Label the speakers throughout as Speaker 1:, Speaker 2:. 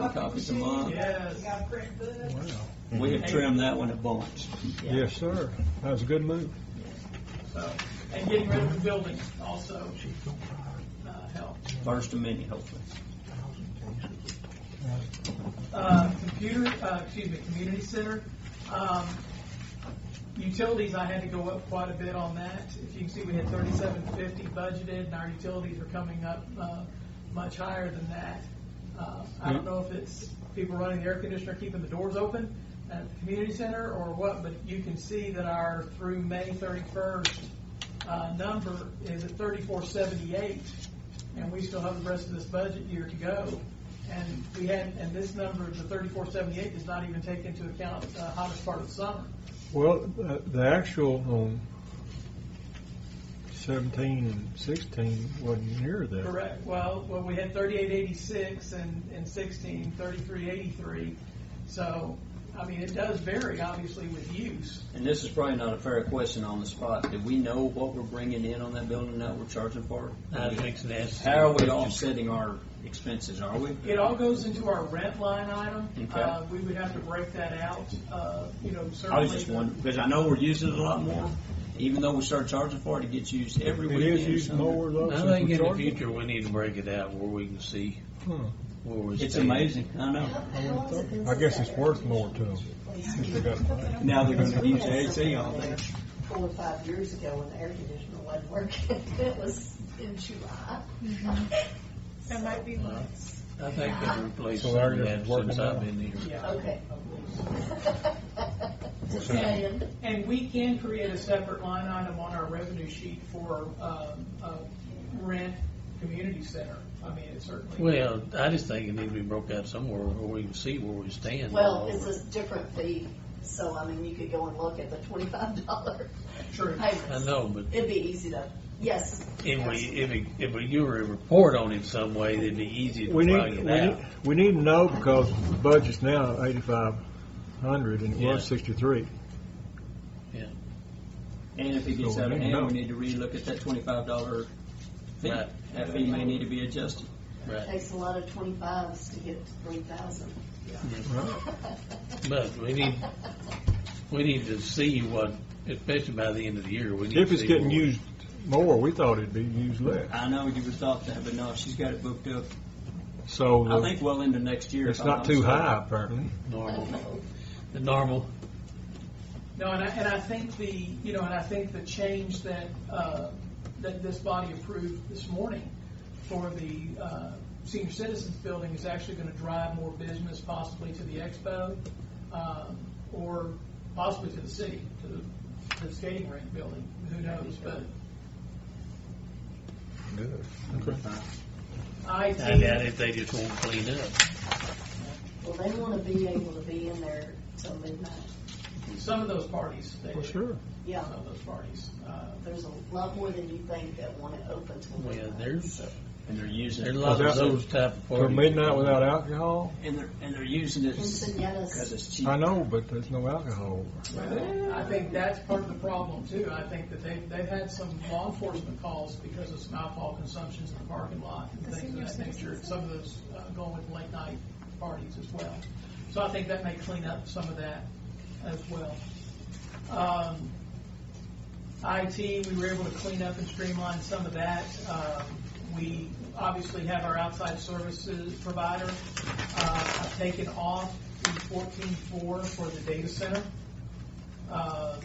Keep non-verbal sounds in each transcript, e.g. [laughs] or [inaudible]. Speaker 1: copies a month.
Speaker 2: Yes.
Speaker 3: You got a print book.
Speaker 4: Wow.
Speaker 1: We have trimmed that one a bunch.
Speaker 4: Yes, sir. That was a good move.
Speaker 2: So, and getting rid of the building also, uh, helped.
Speaker 1: First of many, hopefully.
Speaker 2: Uh, computer, uh, excuse me, community center, um, utilities, I had to go up quite a bit on that. If you can see, we had thirty-seven fifty budgeted, and our utilities are coming up, uh, much higher than that. Uh, I don't know if it's people running the air conditioner, keeping the doors open at the community center or what, but you can see that our through May thirty-first, uh, number is at thirty-four seventy-eight, and we still have the rest of this budget year to go. And we had, and this number, the thirty-four seventy-eight, does not even take into account the hottest part of summer.
Speaker 4: Well, uh, the actual on seventeen and sixteen wasn't near that.
Speaker 2: Correct, well, well, we had thirty-eight eighty-six and, and sixteen, thirty-three eighty-three, so, I mean, it does vary, obviously, with use.
Speaker 1: And this is probably not a fair question on the spot. Do we know what we're bringing in on that building that we're charging for?
Speaker 5: I think that's.
Speaker 1: How are we offsetting our expenses, are we?
Speaker 2: It all goes into our rent line item.
Speaker 1: Okay.
Speaker 2: Uh, We would have to break that out, uh, you know, certainly.
Speaker 1: I was just wondering, because I know we're using it a lot more, even though we start charging for it, it gets used every
Speaker 4: It
Speaker 1: weekend.
Speaker 4: is used
Speaker 1: somewhere.
Speaker 4: more though.
Speaker 5: I
Speaker 4: since
Speaker 5: think
Speaker 4: we
Speaker 5: in the
Speaker 4: started.
Speaker 5: future, we need to break it out where we can see
Speaker 4: Huh.
Speaker 5: where we're.
Speaker 1: It's
Speaker 5: standing.
Speaker 1: amazing, I know.
Speaker 4: I guess it's worth more to them.
Speaker 1: Now they're gonna use AC all day.
Speaker 6: Four or five years ago when the air conditioner wasn't working, [laughs] it was in July.
Speaker 3: That might
Speaker 2: Uh-huh.
Speaker 3: be nice.
Speaker 5: I think they replaced
Speaker 4: So
Speaker 5: some of
Speaker 4: they're
Speaker 5: that
Speaker 4: just working
Speaker 5: since
Speaker 4: out.
Speaker 5: I've been here.
Speaker 2: Yeah.
Speaker 6: Okay. Just saying.
Speaker 2: And we can create a separate line item on our revenue sheet for um, uh, rent community center. I mean, it certainly.
Speaker 5: Well, I just think it needs to be broke out somewhere where we can see where we stand.
Speaker 6: Well, it's a different fee, so I mean, you could go and look at the twenty-five dollar
Speaker 2: True.
Speaker 5: I
Speaker 6: payments.
Speaker 5: know, but
Speaker 6: It'd be easy to, yes.
Speaker 5: if we, if we, if we do a report on it some way, it'd be easy to
Speaker 4: We
Speaker 5: break
Speaker 4: need, we
Speaker 5: it
Speaker 4: need,
Speaker 5: out.
Speaker 4: we need to know because the budget's now eighty-five hundred and it
Speaker 5: Yeah.
Speaker 4: was sixty-three.
Speaker 1: And if it gets
Speaker 4: So
Speaker 1: out
Speaker 4: we
Speaker 1: of
Speaker 4: need to
Speaker 1: hand,
Speaker 4: know.
Speaker 1: we need to relook at that twenty-five dollar fee.
Speaker 5: Right.
Speaker 1: That fee may need to be adjusted.
Speaker 6: It
Speaker 5: Right.
Speaker 6: takes a lot of twenty-fives to get to three thousand. [laughs]
Speaker 4: Right.
Speaker 5: But we need, we need to see what, especially by the end of the year, we need to see.
Speaker 4: If it's getting
Speaker 5: where we-
Speaker 4: used more, we thought it'd be used less.
Speaker 1: I know you would thought that, but no, she's got it booked up.
Speaker 4: So
Speaker 1: I
Speaker 4: the-
Speaker 1: think well into next year.
Speaker 4: it's
Speaker 1: if
Speaker 4: not
Speaker 1: I'm
Speaker 4: too
Speaker 1: honest.
Speaker 4: high apparently.
Speaker 5: Normal, the normal,
Speaker 2: No, and I, and I think the, you know, and I think the change that, uh, that this body approved this morning for the uh, senior citizens building is actually going to drive more business possibly to the expo um, or possibly to the city, to the- the skating rink building, who knows, but IT.
Speaker 5: I doubt if they just won't clean up.
Speaker 6: Well, they wanna be able to be in there till midnight.
Speaker 2: Some of those parties, they
Speaker 4: For sure.
Speaker 6: Yeah,
Speaker 2: Some of those parties. Uh,
Speaker 6: there's a lot more than you think that want it open till
Speaker 5: Well,
Speaker 6: midnight.
Speaker 5: there's,
Speaker 1: And they're using,
Speaker 5: there's a
Speaker 1: it-
Speaker 5: lot of
Speaker 4: Without-
Speaker 5: those type of
Speaker 4: For
Speaker 5: parties.
Speaker 4: midnight without alcohol,
Speaker 1: and they're, and they're using it because
Speaker 6: Quinceañeras,
Speaker 1: it's cheap.
Speaker 4: I know, but there's no alcohol.
Speaker 2: I think that's part of the problem too. I think that they, they've had some law enforcement calls because of some alcohol consumptions in the parking lot and things of that nature. Some of those uh, going with late night parties as well. So I think that may clean up some of that as well. Um, IT, we were able to clean up and streamline some of that. Um, We obviously have our outside services provider. Uh, I've taken off the fourteen-four for the data center. Um,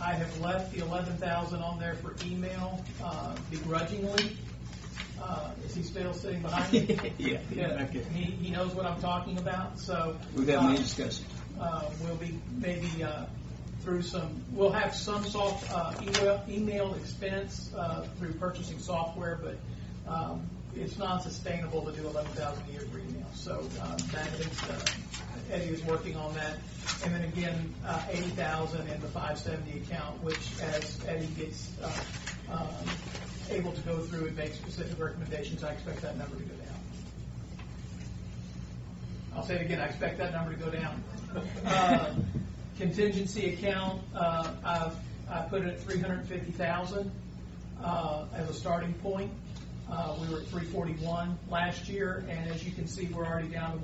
Speaker 2: I have left the eleven thousand on there for email uh, begrudgingly. Uh, Is he still sitting behind me?
Speaker 1: [laughs] [laughs] Yeah.
Speaker 2: Yeah, he, he knows what I'm talking about, so.
Speaker 1: We've had
Speaker 2: uh,
Speaker 1: many discussions.
Speaker 2: uh, we'll be maybe uh, through some, we'll have some soft, uh, email- email expense uh, through purchasing software, but um, it's not sustainable to do 11,000 a year for email. So um, that is, uh, Eddie is working on that. And then again, uh, 80,000 in the 570 account, which as Eddie gets uh, um, able to go through and make specific recommendations, I expect that number to go down. I'll say it again, I expect that number to go down. Uh, Contingency account, uh, I've, I put it at three hundred and fifty thousand, uh, as a starting point. Uh, we were at three forty-one last year, and as you can see, we're already down to